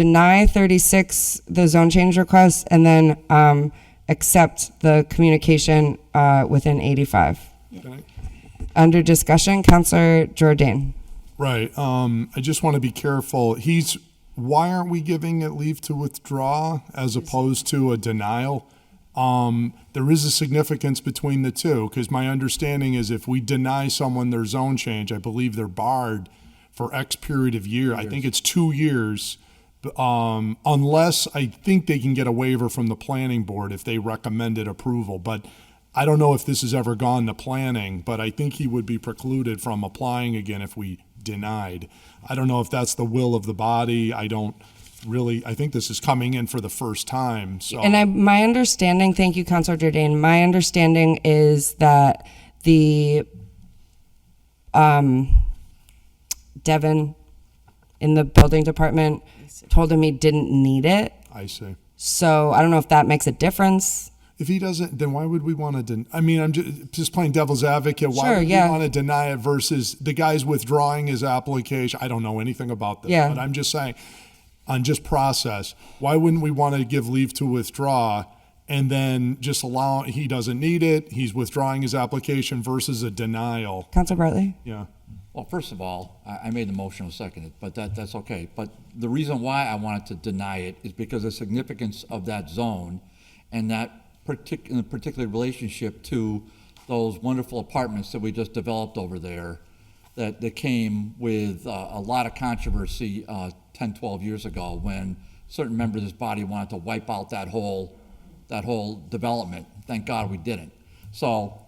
deny 36, the zone change request, and then um, accept the communication uh, within 85. Okay. Under discussion, Counselor Jordan. Right. Um, I just want to be careful. He's, why aren't we giving it leave to withdraw as opposed to a denial? Um, there is a significance between the two because my understanding is if we deny someone their zone change, I believe they're barred for X period of year. I think it's two years. Um, unless I think they can get a waiver from the planning board if they recommended approval, but I don't know if this has ever gone to planning, but I think he would be precluded from applying again if we denied. I don't know if that's the will of the body. I don't really, I think this is coming in for the first time, so. And I, my understanding, thank you, Counselor Jordan, my understanding is that the um, Devin in the building department told him he didn't need it. I see. So I don't know if that makes a difference. If he doesn't, then why would we want to? Den- I mean, I'm just, just playing devil's advocate. Why Sure, would yeah. we want to deny it versus the guy's withdrawing his application? I don't know anything about this, Yeah. but I'm just saying, on just process, why wouldn't we want to give leave to withdraw and then just allow he doesn't need it? He's withdrawing his application versus a denial. Counselor Bartley? Yeah. Well, first of all, I, I made the motion, I'll second it, but that, that's okay. But the reason why I wanted to deny it is because the significance of that zone and that partic, in a particular relationship to those wonderful apartments that we just developed over there that, that came with uh, a lot of controversy uh, 10, 12 years ago when certain members of this body wanted to wipe out that whole, that whole development. Thank God we didn't. So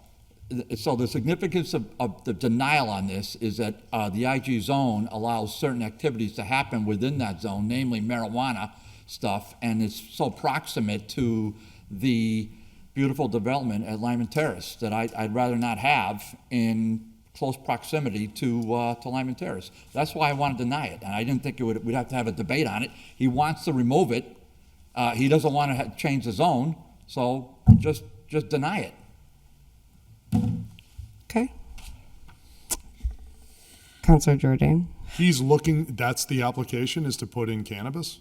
so the significance of, of the denial on this is that uh, the IG zone allows certain activities to happen within that zone, namely marijuana stuff, and it's so proximate to the beautiful development at Lyman Terrace that I, I'd rather not have in close proximity to, uh, to Lyman Terrace. That's why I want to deny it, and I didn't think it would, we'd have to have a debate on it. He wants to remove it. Uh, he doesn't want to ha- change the zone, so just, just deny it. Okay. Counselor Jordan. He's looking, that's the application is to put in cannabis?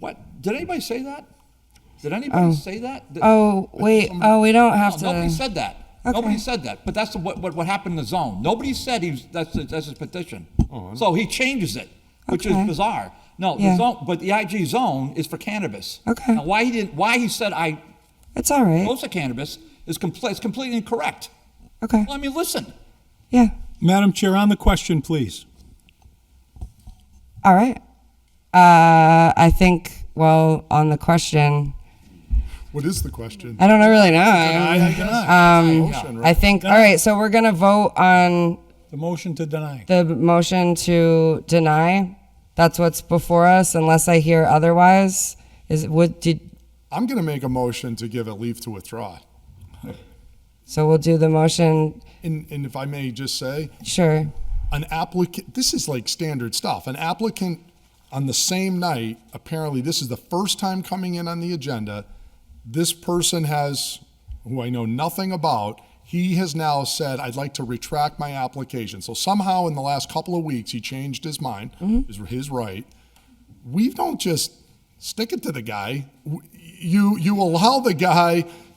What? Did anybody say that? Did anybody say that? Th- Oh, wait. Oh, we don't have no, Nobody to. said that. Okay. Nobody said that. But that's what, what what happened in the zone. Nobody said he was, that's his- that's his petition. Oh, so he changes it, which Okay. is bizarre. No, Yeah. the zone, but the IG zone is for cannabis. Okay. Now, why he didn't? Why he said I It's all right. close to cannabis is complete is completely incorrect. Okay. Well, I mean, listen. Yeah. Madam Chair, on the question, please. All right. Uh, I think, well, on the question, What is the question? I don't know really know. I I, guess. Motion, right? I think, all right, so we're going to vote on The motion to deny. the motion to deny. That's what's before us, unless I hear otherwise. Is, would, did, I'm going to make a motion to give it leave to withdraw. so we'll do the motion, And, and if I may just say, sure. an applicant this is like standard stuff an applicant on the same night apparently this is the first time coming in on the agenda this person has who i know nothing about he has now said i'd like to retract my application so somehow in the last couple of weeks he changed his mind is his right we don't just stick it to the guy. You you allow the guy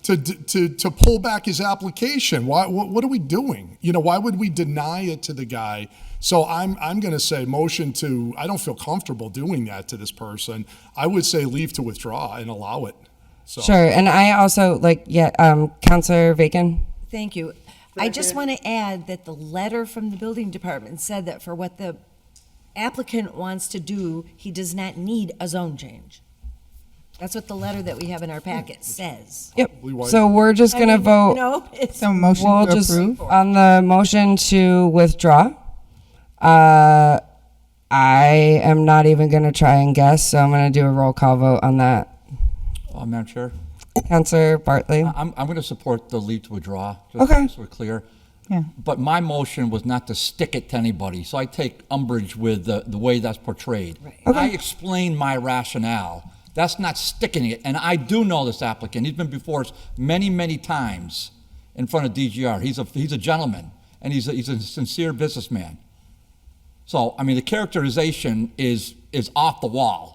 to to to pull back his application. Why what, what are we doing? You know, why would we deny it to the guy? So I'm I'm going to say motion to I don't feel comfortable doing that to this person. I would say leave to withdraw and allow it. So Sure. And I also, like, yeah, um, Counselor Bacon? Thank you. I just want to add that the letter from the building department said that for what the applicant wants to do, he does not need a zone change. That's what the letter that we have in our packet says. Yep. why- So we're just going to vote. No, it's, So motion We'll to just, approve? on the motion to withdraw, uh, I am not even going to try and guess, so I'm going to do a roll call vote on that. Oh, Madam Chair, Counselor Bartley? I'm I'm going to support the leave to withdraw. Just Okay. So we're clear. Yeah. But my motion was not to stick it to anybody, so I take umbrage with the, the way that's portrayed. I explained my rationale. That's not sticking it, and I do know this applicant. He's been before us many, many times in front of DGR. He's a, he's a gentleman, and he's a, he's a sincere businessman. So, I mean, the characterization is is off the wall.